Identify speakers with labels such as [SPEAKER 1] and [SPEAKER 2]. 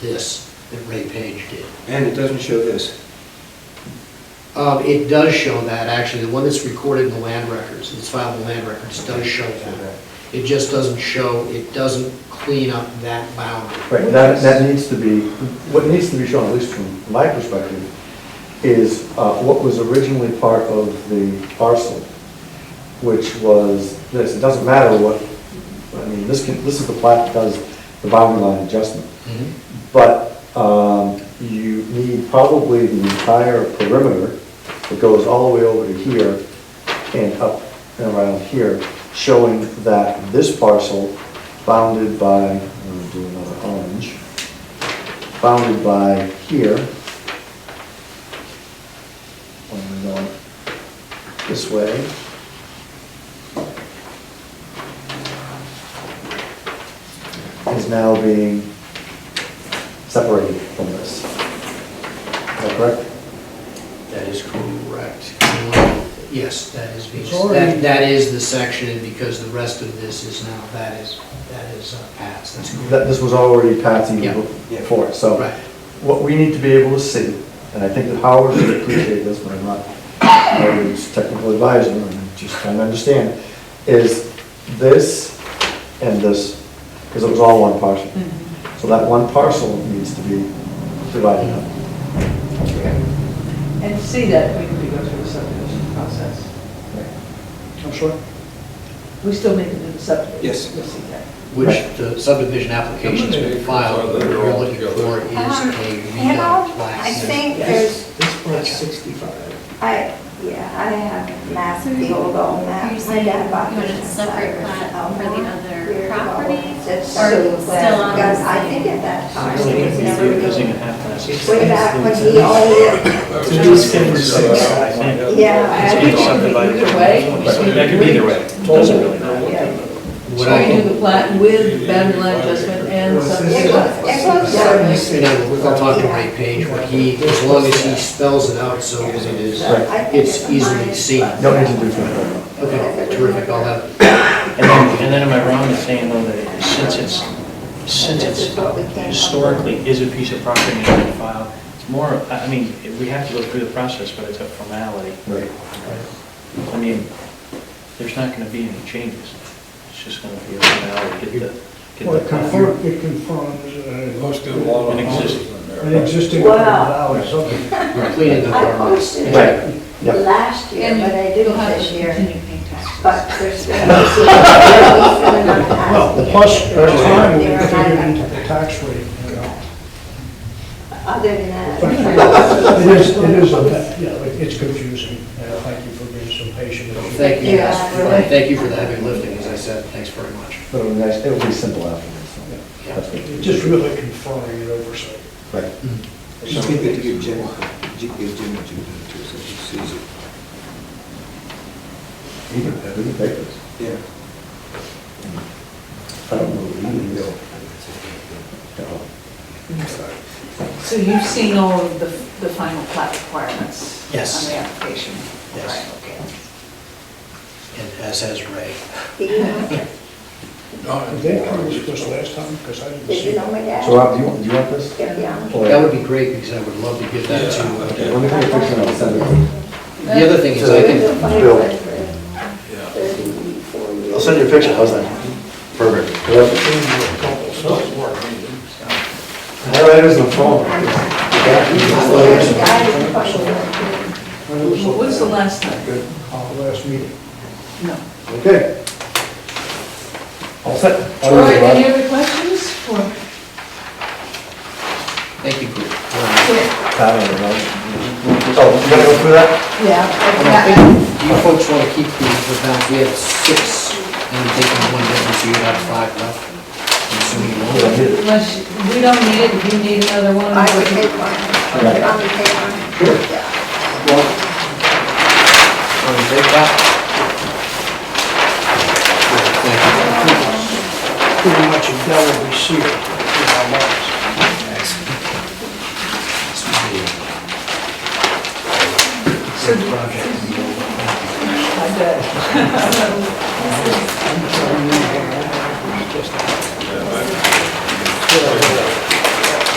[SPEAKER 1] this that Ray Page did.
[SPEAKER 2] And it doesn't show this.
[SPEAKER 1] Um, It does show that, actually, the one that's recorded in the land records, it's filed in the land records, does show that. It just doesn't show, it doesn't clean up that boundary.
[SPEAKER 3] Right, that, that needs to be, what needs to be shown, at least from my perspective, is uh, what was originally part of the parcel, which was this, it doesn't matter what, I mean, this can, this is the plat that does the boundary line adjustment.
[SPEAKER 1] Mm-hmm.
[SPEAKER 3] But um, you need probably the entire perimeter that goes all the way over to here and up and around here, showing that this parcel bounded by, I'm gonna do another orange, bounded by here. And we go this way. Is now being separated from this. Is that correct?
[SPEAKER 1] That is correct. Yes, that is,
[SPEAKER 4] It's
[SPEAKER 1] that,
[SPEAKER 4] already-
[SPEAKER 1] that is the section, and because the rest of this is now, that is, that is uh, passed, that's correct.
[SPEAKER 3] That this was already passed
[SPEAKER 1] Yeah.
[SPEAKER 3] even before, so.
[SPEAKER 1] Right.
[SPEAKER 3] What we need to be able to see, and I think that Howard would appreciate this, but I'm not, Howard's technical advisor, and I'm just trying to understand, is this and this, because it was all one parcel.
[SPEAKER 4] Mm-hmm.
[SPEAKER 3] So that one parcel needs to be divided up.
[SPEAKER 4] And see that we could go through the subdivision process.
[SPEAKER 2] I'm sure.
[SPEAKER 4] We still make it in the subdivision.
[SPEAKER 2] Yes.
[SPEAKER 4] You'll see that.
[SPEAKER 1] Which the subdivision applications we filed, what we're looking for is
[SPEAKER 5] Um,
[SPEAKER 1] a
[SPEAKER 5] You know,
[SPEAKER 1] real
[SPEAKER 5] I
[SPEAKER 1] plat.
[SPEAKER 5] think there's,
[SPEAKER 4] This part's 65.
[SPEAKER 5] I, yeah, I have maps, the old, old maps.
[SPEAKER 6] You're saying
[SPEAKER 5] I got about
[SPEAKER 6] you want a
[SPEAKER 5] 55
[SPEAKER 6] separate
[SPEAKER 5] or
[SPEAKER 6] plat
[SPEAKER 5] so.
[SPEAKER 6] for the other
[SPEAKER 5] Years ago,
[SPEAKER 6] properties,
[SPEAKER 5] it's
[SPEAKER 6] or
[SPEAKER 5] so
[SPEAKER 6] still
[SPEAKER 5] glad,
[SPEAKER 6] on the
[SPEAKER 5] because I
[SPEAKER 6] same-
[SPEAKER 5] think at that time,
[SPEAKER 7] Really
[SPEAKER 5] it was
[SPEAKER 7] confusing,
[SPEAKER 5] never
[SPEAKER 7] using a
[SPEAKER 5] really,
[SPEAKER 7] half glass.
[SPEAKER 5] way back when he owned it.
[SPEAKER 7] Two different sides.
[SPEAKER 5] Yeah, I
[SPEAKER 7] It's
[SPEAKER 5] think
[SPEAKER 7] been
[SPEAKER 5] it could
[SPEAKER 4] be
[SPEAKER 7] subdivided.
[SPEAKER 4] either way.
[SPEAKER 7] That could be either way, It doesn't really matter.
[SPEAKER 4] Yeah.
[SPEAKER 1] What
[SPEAKER 4] So we
[SPEAKER 1] I,
[SPEAKER 4] do the plat with boundary line adjustment and
[SPEAKER 5] It
[SPEAKER 4] subdivision.
[SPEAKER 5] was, it was.
[SPEAKER 1] you know, we're gonna talk to Ray Page, what he, as long as he spells it out so that it is,
[SPEAKER 3] Right.
[SPEAKER 5] I think
[SPEAKER 1] it's easily seen.
[SPEAKER 3] You Don't need to do that.
[SPEAKER 1] Okay, terrific, I'll have,
[SPEAKER 7] And then, and then am I wrong in saying though that since it's, since it's historically is a piece of property in the file, it's more, I I mean, we have to go through the process, but it's a formality.
[SPEAKER 3] Right.
[SPEAKER 7] I mean, there's not gonna be any changes. It's just gonna be a formality, get the, get
[SPEAKER 8] Well,
[SPEAKER 7] the.
[SPEAKER 8] it confirms, it confirms uh,
[SPEAKER 9] Most of the law
[SPEAKER 7] An
[SPEAKER 9] houses
[SPEAKER 7] existing-
[SPEAKER 9] in
[SPEAKER 8] an
[SPEAKER 9] there.
[SPEAKER 8] existing
[SPEAKER 5] Wow.
[SPEAKER 8] valid subdivision.
[SPEAKER 1] we're cleaning up
[SPEAKER 5] I
[SPEAKER 1] our
[SPEAKER 5] posted
[SPEAKER 3] Right.
[SPEAKER 5] it
[SPEAKER 3] Yep.
[SPEAKER 5] last year,
[SPEAKER 6] And
[SPEAKER 5] but I
[SPEAKER 6] you'll
[SPEAKER 5] didn't
[SPEAKER 6] have
[SPEAKER 5] this
[SPEAKER 6] to
[SPEAKER 5] year.
[SPEAKER 6] continue paying taxes.
[SPEAKER 5] But there's been. Well,
[SPEAKER 8] Well, plus, at the time, we figured into the tax rate, you know.
[SPEAKER 5] Other than
[SPEAKER 8] But
[SPEAKER 5] that.
[SPEAKER 8] It is, it is, a bit, you know, it- it's confusing, and I thank you for being so patient. with me.
[SPEAKER 1] Thank you,
[SPEAKER 5] Yeah.
[SPEAKER 1] guys, for- and thank you for the heavy lifting, as I said, thanks very much.
[SPEAKER 3] But it'll be nice, it'll be simple afterwards.
[SPEAKER 1] Yeah.
[SPEAKER 3] That's good.
[SPEAKER 8] It's Just really confirming an oversight.
[SPEAKER 3] Right.
[SPEAKER 2] Just give it to give Jim, give Jim what you did to, so he sees it.
[SPEAKER 3] You can, you can take this.
[SPEAKER 2] Yeah.
[SPEAKER 3] I don't know what you need.
[SPEAKER 2] Mm-hmm.
[SPEAKER 5] Mm-hmm.
[SPEAKER 4] So you've seen all of the, the final plat requirements?
[SPEAKER 1] Yes.
[SPEAKER 4] On the application?
[SPEAKER 1] Yes.
[SPEAKER 4] Right, okay.
[SPEAKER 1] And as has Ray.
[SPEAKER 8] Did they come to this last time? Because I didn't
[SPEAKER 5] Did
[SPEAKER 8] see
[SPEAKER 5] you
[SPEAKER 8] it.
[SPEAKER 5] know my dad?
[SPEAKER 3] So Rob, do you want, do you want this?
[SPEAKER 5] Yeah, yeah.
[SPEAKER 3] Or-
[SPEAKER 1] That would be great, because I would love to give that to,
[SPEAKER 3] Let me take a picture and I'll send it.
[SPEAKER 1] the other thing is, I
[SPEAKER 5] We've
[SPEAKER 1] think
[SPEAKER 5] been fighting
[SPEAKER 3] Bill.
[SPEAKER 5] for Thirty-four years.
[SPEAKER 3] I'll send you a picture, how's that? Perfect. All right, there's the phone.
[SPEAKER 5] There's a guy in the question.
[SPEAKER 4] What was the last time?
[SPEAKER 8] Uh, Last meeting.
[SPEAKER 4] No.
[SPEAKER 3] Okay. All set.
[SPEAKER 4] All right, any other questions? Or-
[SPEAKER 1] Thank you, Group.
[SPEAKER 3] Pat, I don't know. Oh, you gotta go through that?
[SPEAKER 4] Yeah.
[SPEAKER 1] Do you folks want to keep the, the balance, we have six, and we're taking one difference, so you have five left. I'm assuming you
[SPEAKER 3] Oh, Yeah, I
[SPEAKER 1] want
[SPEAKER 3] did
[SPEAKER 1] it.
[SPEAKER 3] it.
[SPEAKER 4] Unless, you- we don't need it, if you need another one.
[SPEAKER 5] I
[SPEAKER 4] we
[SPEAKER 5] would
[SPEAKER 4] can-
[SPEAKER 5] take one.
[SPEAKER 3] Right.
[SPEAKER 5] I would take one.
[SPEAKER 1] Sure.
[SPEAKER 5] Yeah.
[SPEAKER 1] Well, want to take that? Thank you.
[SPEAKER 8] Pretty much a double receipt in our lives.
[SPEAKER 1] This would be
[SPEAKER 4] So do-
[SPEAKER 1] a project.
[SPEAKER 4] I bet.